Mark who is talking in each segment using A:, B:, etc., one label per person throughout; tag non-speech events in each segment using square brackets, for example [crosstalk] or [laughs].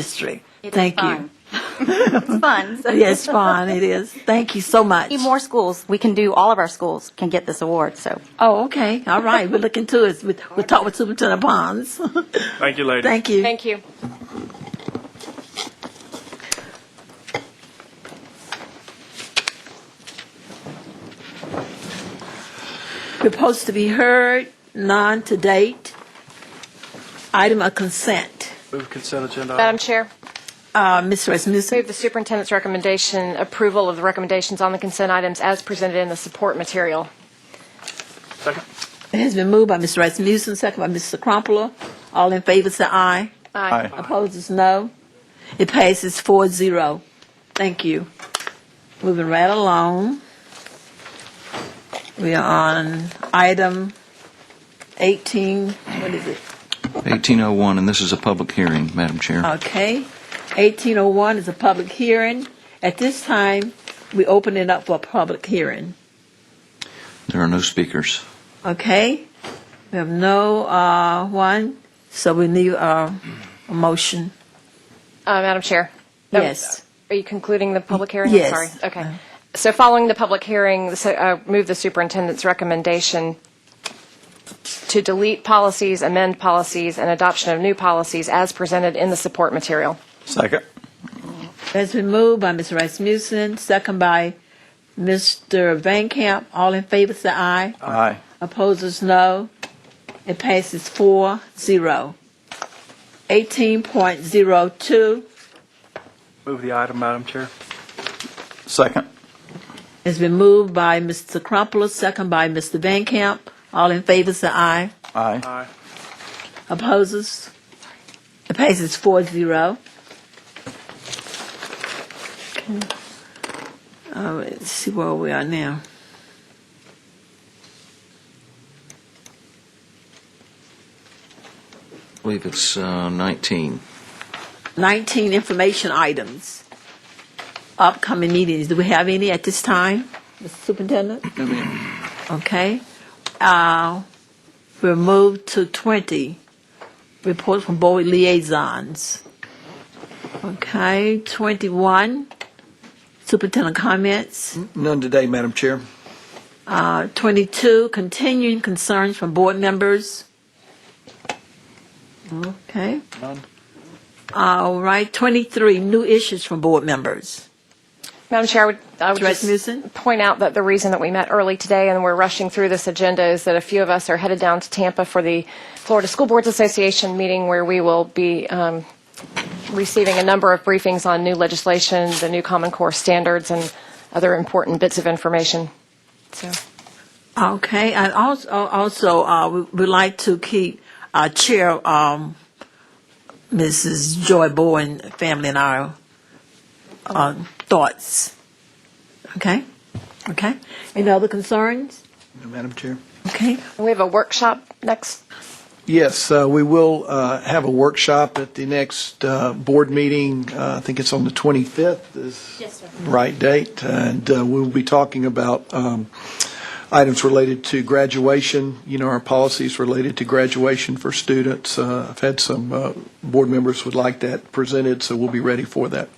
A: district.
B: It's
A: Thank you.
B: fun. It's fun. so-
A: Yes, fun, it is. Thank you so much.
B: Need More schools, [laughs] we can do, all of our schools can get this award, so.
A: Oh, okay, all right, we're looking to it. We- We'll talk with Superintendent Bonds.
C: Thank you, ladies.
A: Thank you.
D: Thank you.
A: Reports to be heard, none to date. Item of consent.
C: Move consent agenda.
D: Madam Chair,
A: Uh, Ms. Rasmussen,
D: move the superintendent's recommendation, approval of the recommendations on the consent items as presented in the support material.
C: Second.
A: it has been moved by Ms. Rasmussen, second by Mr. Crumpler. All in favor, say aye.
C: Aye.
A: Opposed is no. It passes four zero. Thank you. Moving right along. We are on item 18, what is it?
E: 1801, and this is a public hearing, Madam Chair.
A: Okay. 1801 is a public hearing. At this time, we open it up for a public hearing.
E: There are no speakers.
A: Okay? We have no uh, one, so we need uh, a motion.
D: Uh, Madam Chair? that-
A: Yes.
D: Are you concluding the public hearing? I'm
A: Yes. Uh-huh.
D: Sorry, okay. So following the public hearing, so, uh, move the superintendent's recommendation to delete policies, amend policies, and adoption of new policies as presented in the support material.
C: Second.
A: It's been moved by Ms. Rasmussen, second by Mr. Van Camp. All in favor, say aye.
C: Aye.
A: Opposers, no. It passes four zero. 18.02
C: Move the item, Madam Chair. Second.
A: has been moved by Mr. Crumpler, second by Mr. Van Camp. All in favor, say aye.
E: Aye.
C: Aye.
A: Opposes? It passes four zero. All right, Uh, let's see where we are now.
E: I believe it's uh, 19.
A: 19 information items. Upcoming meetings, do we have any at this time, Mr. Superintendent? Okay. Uh, We'll move to 20, reports from board liaisons. Okay, 21, superintendent comments.
F: None today, Madam Chair.
A: Uh, 22, continuing concerns from board members. Okay.
C: None.
A: All right, 23, new issues from board members.
D: Madam Chair, I would, I would
A: Dress Newsom?
D: just point out that the reason that we met early today and we're rushing through this agenda is that a few of us are headed down to Tampa for the Florida School Boards Association meeting where we will be um, receiving a number of briefings on new legislation, the new Common Core standards, and other important bits of information. So,
A: Okay, and also, also uh, we would like to keep our chair, um, Mrs. Joy Bowen, family in our uh, thoughts. Okay? Okay? Any other concerns?
F: No, Madam Chair.
A: Okay?
D: we have a workshop next
F: Yes, uh, we will uh, have a workshop at the next uh, board meeting. Uh, I think it's on the 25th is the right date. And uh, we'll be talking about um, items related to graduation, you know, our policies related to graduation for students. Uh, I've had some uh, board members would like that presented, so we'll be ready for that.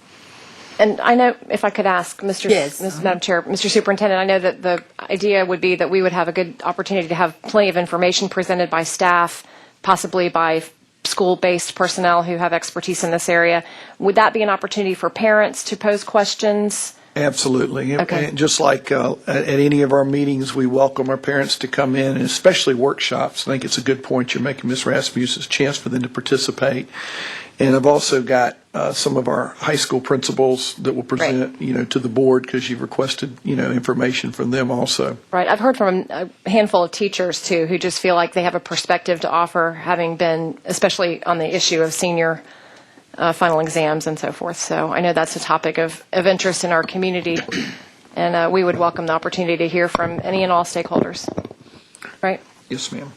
D: And I know, if I could ask, Mr.
A: Yes.
D: Ms. Madam Chair, Mr. Superintendent, I know that the idea would be that we would have a good opportunity to have plenty of information presented by staff, possibly by school-based personnel who have expertise in this area. Would that be an opportunity for parents to pose questions?
F: Absolutely.
D: Okay.
F: And just like uh, at at any of our meetings, we welcome our parents to come in, and especially workshops. I think it's a good point you're making, Ms. Rasmussen, it's a chance for them to participate. And I've also got uh, some of our high school principals that will present, you know, to the board because you've requested, you know, information from them also.
D: Right, I've heard from a handful of teachers, too, who just feel like they have a perspective to offer, having been, especially on the issue of senior uh, final exams and so forth. So I know that's a topic of, of interest in our community, and uh, we would welcome the opportunity to hear from any and all stakeholders. Right?
F: Yes, ma'am.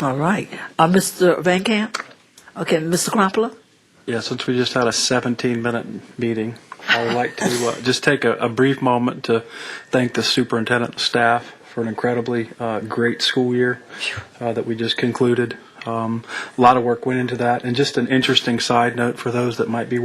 A: All right. Uh, Mr. Van Camp? Okay, Mr. Crumpler?
C: Yeah, since we just had a 17-minute meeting, I would like to uh, just take a, a brief moment to thank the superintendent and staff for an incredibly uh, great school year uh, that we just concluded. Um, a lot of work went into that. And just an interesting side note for those that might be